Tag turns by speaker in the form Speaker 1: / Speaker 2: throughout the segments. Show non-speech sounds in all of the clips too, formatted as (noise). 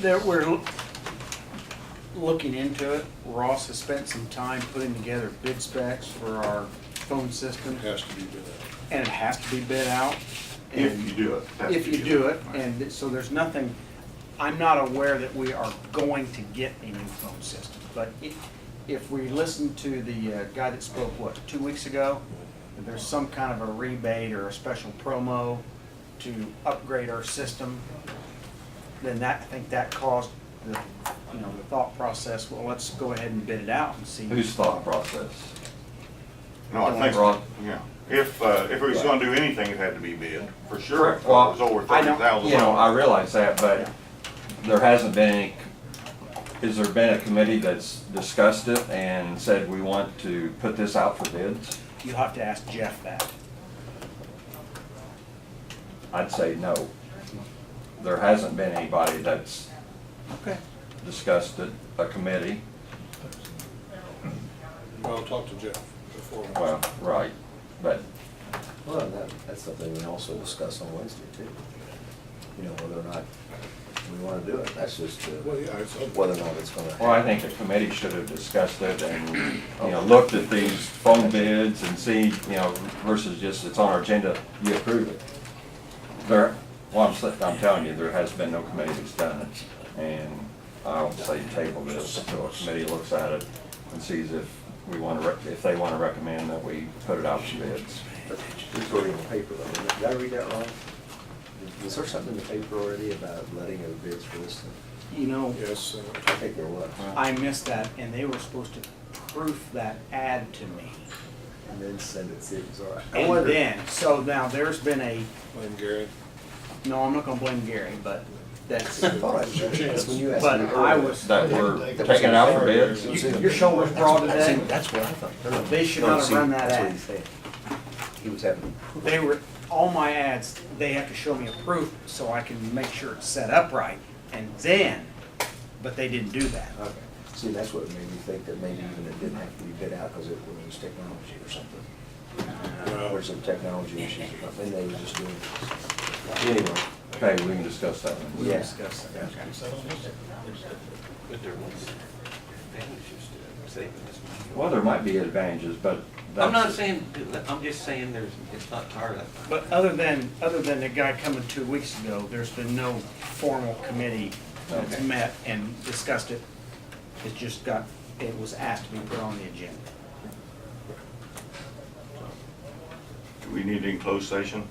Speaker 1: There, we're l- looking into it. Ross has spent some time putting together bid specs for our phone system,
Speaker 2: has to be bid out.
Speaker 1: and it has to be bid out.
Speaker 3: If
Speaker 1: and-
Speaker 3: you do it. that's
Speaker 1: If
Speaker 3: what
Speaker 1: you do it, and so there's nothing, I'm not aware that we are going to get a new phone system. But if, if we listen to the uh, guy that spoke, what, two weeks ago? that There's some kind of a rebate or a special promo to upgrade our system. Then that, I think that caused the, you know, the thought process, well, let's go ahead and bid it out and see.
Speaker 4: Whose thought process?
Speaker 3: No, I think,
Speaker 4: Right.
Speaker 3: yeah, if, uh, if it was gonna do anything, it had to be bid, for sure.
Speaker 4: Correct. Well,
Speaker 3: It was over
Speaker 1: I
Speaker 3: thirty
Speaker 1: don't-
Speaker 3: thousand
Speaker 4: You know,
Speaker 3: dollars.
Speaker 4: I realize that,
Speaker 1: Yeah.
Speaker 4: but there hasn't been any, has there been a committee that's discussed it and said we want to put this out for bids?
Speaker 1: You'll have to ask Jeff that.
Speaker 4: I'd say no. There hasn't been anybody that's
Speaker 1: Okay.
Speaker 4: discussed it, a committee.
Speaker 2: Well, talk to Jeff before.
Speaker 4: Well, right, but
Speaker 5: Well, and that, that's something we also discuss on Wednesday too. You know, whether or not we wanna do it, that's just uh,
Speaker 2: Well, yeah, it's up-
Speaker 5: whether or not it's gonna.
Speaker 4: Well, I think the committee should have discussed it and, you know, looked at these phone bids and see, you know, versus just it's on our agenda, you approve it. There, well, I'm, sa- I'm telling you, there has been no committee that's done it, and I'll say table this until a committee looks at it and sees if we want to, if they want to recommend that we put it out to bids.
Speaker 5: It's already in the paper though, did I read that wrong? Was there something in the paper already about letting of bids for this thing?
Speaker 1: You know,
Speaker 2: Yes, uh,
Speaker 5: I think there was.
Speaker 1: I missed that, and they were supposed to proof that ad to me.
Speaker 5: And then send it, see if it's all right. I
Speaker 1: And
Speaker 5: wondered-
Speaker 1: then, so now there's been a,
Speaker 2: blame Gary.
Speaker 1: no, I'm not gonna blame Gary, but that's,
Speaker 5: I thought I read it. That's when you asked me
Speaker 1: but I
Speaker 5: earlier.
Speaker 1: was,
Speaker 4: That we're taking it out for bids.
Speaker 5: It was in the-
Speaker 1: Your shoulders broad
Speaker 5: That's-
Speaker 1: today?
Speaker 5: That's what I thought.
Speaker 1: They should
Speaker 5: No,
Speaker 1: not have
Speaker 5: see,
Speaker 1: run that
Speaker 5: that's what
Speaker 1: ad.
Speaker 5: he's saying. He was having.
Speaker 1: they were, all my ads, they have to show me a proof so I can make sure it's set up right. And then, but they didn't do that.
Speaker 5: Okay. See, that's what made me think that maybe even it didn't have to be bid out because it was technology or something.
Speaker 2: Well,
Speaker 5: Or some technology issues or something, they were just doing. Anyway.
Speaker 4: Okay, we can discuss that one.
Speaker 1: We'll
Speaker 5: Yeah.
Speaker 1: discuss that. Okay.
Speaker 6: But there was advantages to saving this money.
Speaker 4: Well, there might be advantages, but that's.
Speaker 6: I'm not saying, do that. I'm just saying there's, it's not tired of.
Speaker 1: But other than, other than the guy coming two weeks ago, there's been no formal committee that's
Speaker 4: Okay.
Speaker 1: met and discussed it. It just got, it was asked to be put on the agenda.
Speaker 3: Do we need any closed session?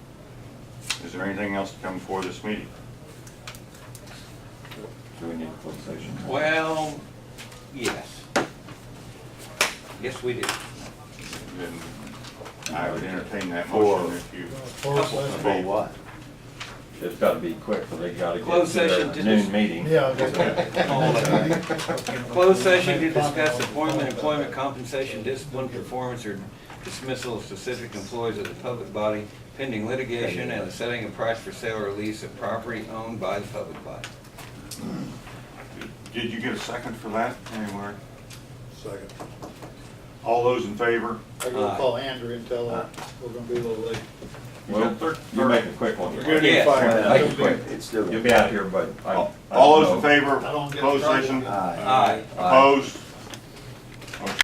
Speaker 3: Is there anything else to come before this meeting?
Speaker 4: Do we need a closed session?
Speaker 6: Well, yes. Yes, we did.
Speaker 3: Then I would entertain that motion if you.
Speaker 5: For what?
Speaker 4: It's gotta be quick, for they gotta get
Speaker 6: Closed
Speaker 4: to
Speaker 6: session to
Speaker 4: their noon
Speaker 6: dis-
Speaker 4: meeting.
Speaker 6: Closed session to discuss appointment, employment, compensation, discipline, performance, or dismissal of specific employees of the public body pending litigation and the setting of price for sale or lease of property owned by the public body.
Speaker 3: (laughs) Did you get a second for that anywhere?
Speaker 2: Second.
Speaker 3: All those in favor?
Speaker 7: I
Speaker 6: Aye.
Speaker 7: gotta call Andrew and tell her we're gonna be a little late.
Speaker 4: Well, you make a quick one.
Speaker 2: We're good in
Speaker 6: Yes.
Speaker 2: five.
Speaker 4: Make it quick.
Speaker 5: It's
Speaker 4: You'll
Speaker 5: doing.
Speaker 4: be out here, but I. I
Speaker 3: All those
Speaker 4: don't
Speaker 3: in
Speaker 4: know.
Speaker 3: favor?
Speaker 7: I don't get
Speaker 3: Closed
Speaker 7: started.
Speaker 3: session?
Speaker 5: Aye.
Speaker 6: Aye.
Speaker 3: Opposed?